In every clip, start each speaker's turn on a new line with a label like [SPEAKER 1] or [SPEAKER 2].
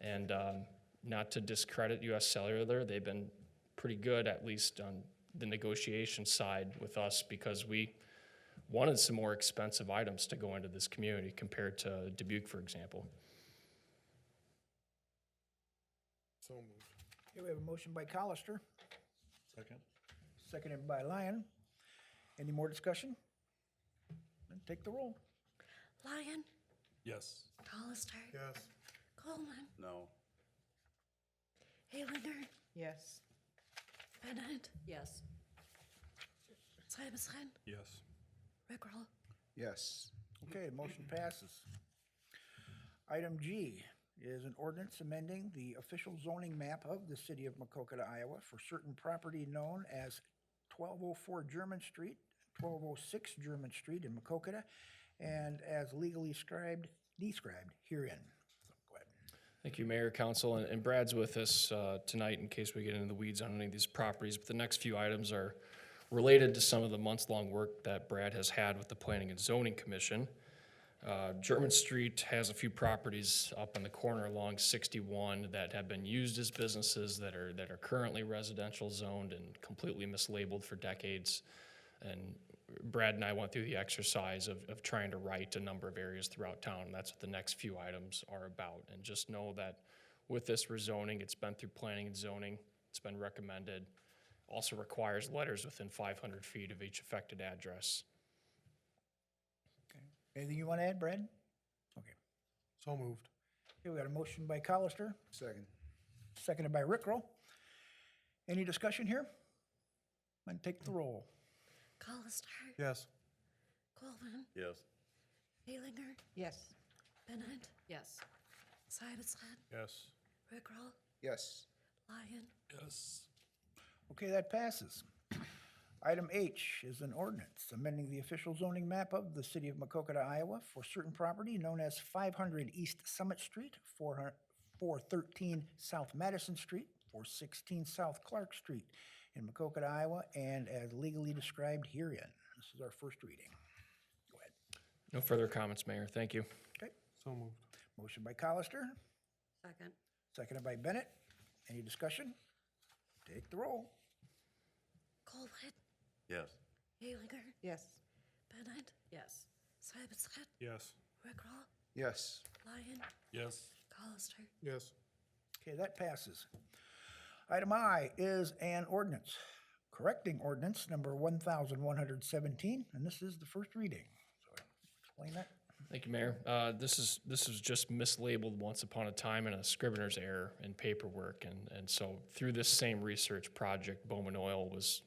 [SPEAKER 1] And um, not to discredit US Cellular, they've been pretty good, at least on the negotiation side with us, because we wanted some more expensive items to go into this community compared to Dubuque, for example.
[SPEAKER 2] So moved.
[SPEAKER 3] Okay, we have a motion by Colister,
[SPEAKER 2] Second?
[SPEAKER 3] seconded by Lyon. Any more discussion? Then take the roll.
[SPEAKER 4] Lyon,
[SPEAKER 2] Yes.
[SPEAKER 4] Hollister,
[SPEAKER 2] Yes.
[SPEAKER 4] Coleman,
[SPEAKER 2] No.
[SPEAKER 4] Haylander,
[SPEAKER 5] Yes.
[SPEAKER 4] Bennett,
[SPEAKER 5] Yes.
[SPEAKER 4] Simonson,
[SPEAKER 2] Yes.
[SPEAKER 4] Rickroll.
[SPEAKER 3] Yes. Okay, motion passes. Item G is an ordinance amending the official zoning map of the city of Macokota, Iowa for certain property known as 1204 German Street, 1206 German Street in Macokota, and as legally scribed, described herein. So go ahead.
[SPEAKER 1] Thank you, Mayor, Council, and- and Brad's with us uh, tonight in case we get into the weeds on any of these properties. But the next few items are related to some of the months-long work that Brad has had with the Planning and Zoning Commission. Uh, German Street has a few properties up on the corner along 61 that have been used as businesses that are, that are currently residential zoned and completely mislabeled for decades. And Brad and I went through the exercise of, of trying to write a number of areas throughout town. and That's what the next few items are about. And just know that with this rezoning, it's been through planning and zoning, it's been recommended. Also requires letters within 500 feet of each affected address.
[SPEAKER 3] Anything you want to add, Brad? Okay.
[SPEAKER 2] So moved.
[SPEAKER 3] Here we got a motion by Colister,
[SPEAKER 2] Second.
[SPEAKER 3] seconded by Rickrell. Any discussion here? Then take the roll.
[SPEAKER 4] Hollister,
[SPEAKER 2] Yes.
[SPEAKER 4] Coleman,
[SPEAKER 2] Yes.
[SPEAKER 4] Haylander,
[SPEAKER 5] Yes.
[SPEAKER 4] Bennett,
[SPEAKER 5] Yes.
[SPEAKER 4] Simonson,
[SPEAKER 2] Yes.
[SPEAKER 4] Rickroll,
[SPEAKER 3] Yes.
[SPEAKER 4] Lyon,
[SPEAKER 2] Yes.
[SPEAKER 3] Okay, that passes. Item H is an ordinance amending the official zoning map of the city of Macokota, Iowa for certain property known as 500 East Summit Street, 400 413 South Madison Street, 416 South Clark Street in Macokota, Iowa, and as legally described herein. This is our first reading. Go ahead.
[SPEAKER 1] No further comments, Mayor. Thank you.
[SPEAKER 3] Okay,
[SPEAKER 2] So moved.
[SPEAKER 3] motion by Colister,
[SPEAKER 5] Second.
[SPEAKER 3] seconded by Bennett. Any discussion? Take the roll.
[SPEAKER 4] Coleman,
[SPEAKER 2] Yes.
[SPEAKER 4] Haylander,
[SPEAKER 5] Yes.
[SPEAKER 4] Bennett,
[SPEAKER 5] Yes.
[SPEAKER 4] Simonson,
[SPEAKER 2] Yes.
[SPEAKER 4] Rickroll,
[SPEAKER 3] Yes.
[SPEAKER 4] Lyon,
[SPEAKER 2] Yes.
[SPEAKER 4] Hollister.
[SPEAKER 2] Yes.
[SPEAKER 3] Okay, that passes. Item I is an ordinance, correcting ordinance number 1,117, and this is the first reading. So Explain that.
[SPEAKER 1] Thank you, Mayor. Uh, This is, this is just mislabeled once upon a time in a scrivener's error in paperwork. And, and so through this same research project, Bowman Oil was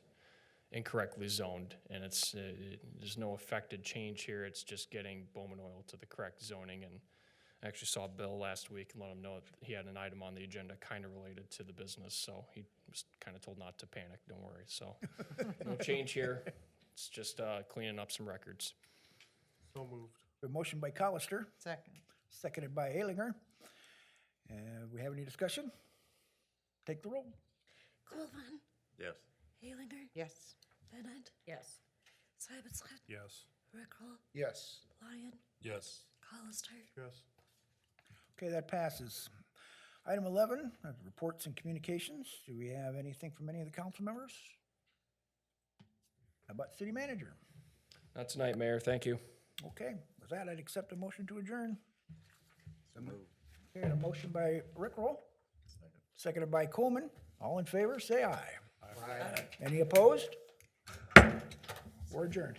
[SPEAKER 1] incorrectly zoned. And it's, uh, it- there's no affected change here. It's just getting Bowman Oil to the correct zoning. And I actually saw Bill last week and let him know that he had an item on the agenda kind of related to the business. So he was kind of told not to panic, don't worry. So no change here. It's just uh, cleaning up some records.
[SPEAKER 2] So moved.
[SPEAKER 3] A motion by Colister,
[SPEAKER 5] Second.
[SPEAKER 3] seconded by Alinger. Uh, We have any discussion? Take the roll.
[SPEAKER 4] Coleman,
[SPEAKER 2] Yes.
[SPEAKER 4] Haylander,
[SPEAKER 5] Yes.
[SPEAKER 4] Bennett,
[SPEAKER 5] Yes.
[SPEAKER 4] Simonson,
[SPEAKER 2] Yes.
[SPEAKER 4] Rickroll,
[SPEAKER 3] Yes.
[SPEAKER 4] Lyon,
[SPEAKER 2] Yes.
[SPEAKER 4] Hollister.
[SPEAKER 2] Yes.
[SPEAKER 3] Okay, that passes. Item 11, uh, reports and communications. Do we have anything from any of the council members? How about city manager?
[SPEAKER 1] Not tonight, Mayor. Thank you.
[SPEAKER 3] Okay, with that, I'd accept a motion to adjourn.
[SPEAKER 2] So moved.
[SPEAKER 3] Okay, a motion by Rickroll, seconded by Coleman. All in favor, say aye. Aye. Any opposed? We're adjourned.